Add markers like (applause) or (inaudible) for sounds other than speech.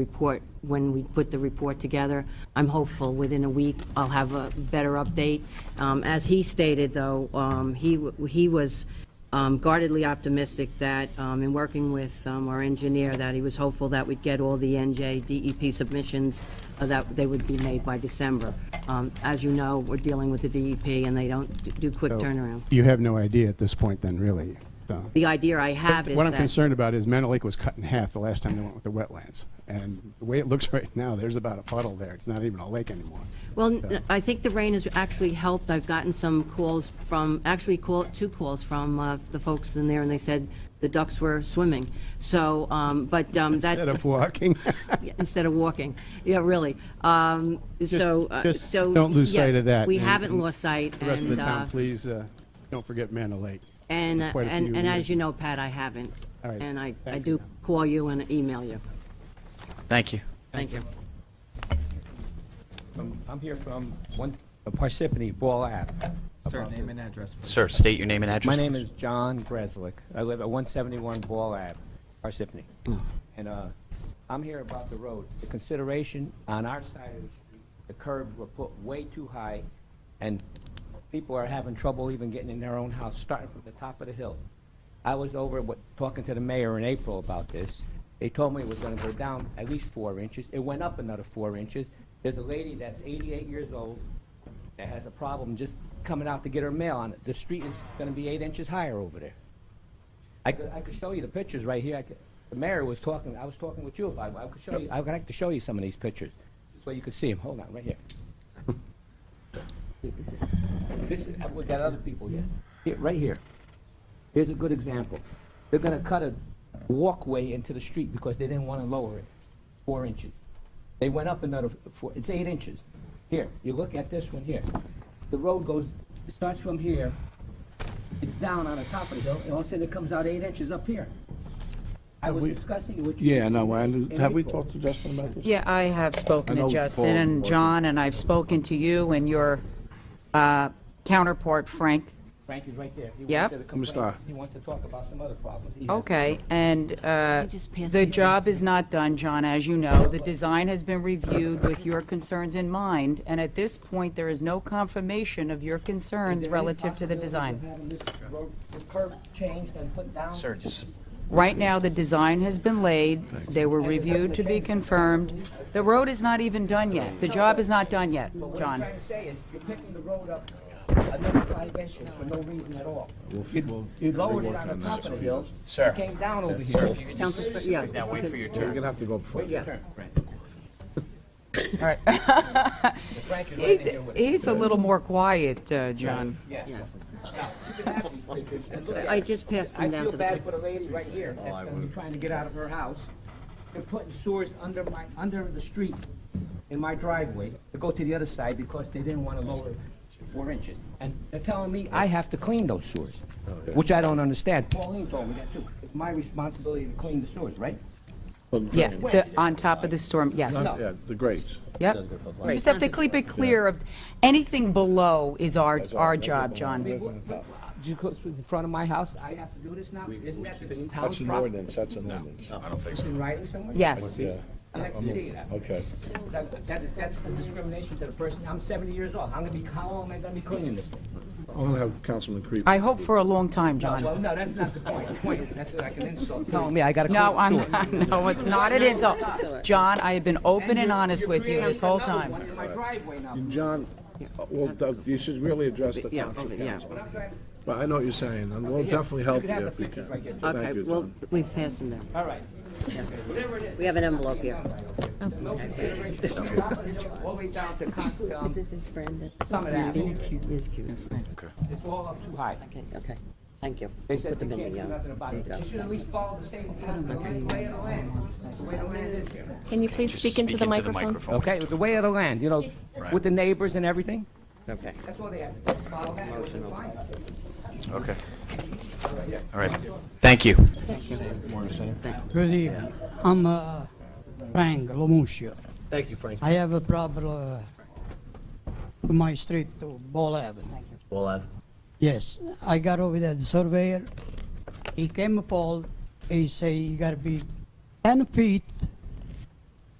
report, when we put the report together. I'm hopeful within a week, I'll have a better update. Um, As he stated, though, um, he, w- he was um, guardedly optimistic that, um, in working with um, our engineer, that he was hopeful that we'd get all the NJ DEP E submissions, uh, that they would be made by December. Um, As you know, we're dealing with the DEP, and they don't do quick turnaround. You have no idea at this point then, really. so. The idea I have is What I'm that, concerned about is Manor Lake was cut in half the last time they went with the wetlands. And the way it looks (laughs) right now, there's about a puddle there. It's not even a lake anymore. well, n- I think the rain has actually helped. I've gotten some calls from, actually call, two calls from uh, the folks in there, and they said the ducks were swimming. So, um, but um, that. Instead of walking. (laughs) Yeah, (laughs) instead of walking. Yeah, really. Um, So, uh, just so. don't lose sight yes, of that, We and- haven't and lost sight. The rest of the and, uh, town, please, uh, don't forget Manor Lake. And, uh, quite a and few and as years. you know, Pat, I haven't. All right. And I, I Thank do you. call you and email you. Thank you. Thank you. Um, I'm here from one, uh, Parsippany Ball Ave. Sir, name and address, please. Sir, state your name and address. My name is John Breslick. I live at 171 Ball Ave, Parsippany. And uh, I'm here about the road. The consideration on our side of the street, the curbs were put way too high, and people are having trouble even getting in their own house, starting from the top of the hill. I was over, with- talking to the mayor in April about this. They told me it was gonna go down at least four inches. It went up another four inches. There's a lady that's 88 years old that has a problem just coming out to get her mail on it. The street is gonna be eight inches higher over there. I could, I could show you the pictures right here. I could, the mayor was talking, I was talking with you about, it. I could show you, I would like to show you some of these pictures. This way you could see them. Hold on, right here. This is, uh, we got other people here. Here, right here. Here's a good example. They're gonna cut a walkway into the street because they didn't wanna lower it four inches. They went up another four, it's eight inches. Here, you look at this one here. The road goes, it starts from here, it's down on the top of the hill, and all of a sudden it comes out eight inches up here. I was discussing it with you. Yeah, no, in have we April. talked to Justin about this? Yeah, I have spoken I know to it's Justin called- and John, and I've spoken to you and your uh, counterpart, Frank. Frank is right there. He Yep. wanted to Mr. complain. Starr. He wants to talk about some other problems. he has. Okay, and uh, I just passed the these job is not done, John, as you know. The design has been reviewed with your concerns in mind, and at this point, there is no confirmation of your concerns Is there any relative to the possibility design. of having this road- this curb changed and put down? Sir, just, Right now, the design has been laid, they were reviewed to be confirmed. The road is not even done yet. The job is not done yet, But what I'm John. trying to say is, you're picking the road up another five inches for no reason at all. You- You lowered it on the top of the hill, Sir. it came down over here. Council, yeah. now wait for your We're turn. gonna have to go before. All right. (laughs) Frank is right in He's, here with it. he's a little more quiet, uh, John. Yes. Now, you can have these pictures and look at I it. just passed I them down feel to the. bad for the lady right here Oh, that's gonna be trying to get out of her house. They're putting sewers under my, under the street in my driveway to go to the other side because they didn't wanna lower it four inches. And they're telling me I have to clean those sewers, Oh, which I don't understand. Pauline told me that too. It's my responsibility to clean the sewers, right? Yeah, the, on top of the storm, yes. Yeah, the grades. Yep. You just have to keep it clear of, anything below is our, our job, John. Because it's in front of my house, I have to do this now? Isn't that the town's That's an property? ordinance, that's an ordinance. I don't think so. In writing somewhere? Yes. Yeah, I'd like to see that. okay. That, that- that's the discrimination to the person, I'm seventy years old, I'm gonna be, how long am I gonna be cleaning this thing? I'm gonna have Councilman Creep. I hope for a long time, No, well, John. no, that's not the point, the point is, that's like an insult, telling me I gotta clean No, I'm, the sewer. not- (laughs) no, it's not an insult. John, I have been open and honest with you this whole You're time. creating another one in my driveway now. John, uh, well, Doug, you should really address the Yeah, township yeah. council. But I'm trying to- But I know what you're saying, and we'll definitely help can have you the if we pictures can. right here. Thank Okay, you, well, John. we passed them down. All right. Whatever it is. We have an envelope here. No consideration, from top of the hill all the way down to Con- um, is his friend. Summit Avenue, He's cute. it's all up too high. Okay, okay. Thank you. They We'll said put you them in can't do the, uh, nothing about it, there you but you go. should at least follow the same the way of the land, the way the land is here. Can you please Just speak into the microphone? Okay, with the way of the land, you know, with the neighbors and everything. Okay. That's all they have to do, follow that, which is fine. Okay. All right. Thank you. Good evening. I'm uh, Frank Lomuscio. Thank you, Frank. I have a problem uh, to my street to Ball Avenue. Well, uh, Yes, I got over there, the surveyor, he came up all, he say you gotta be ten feet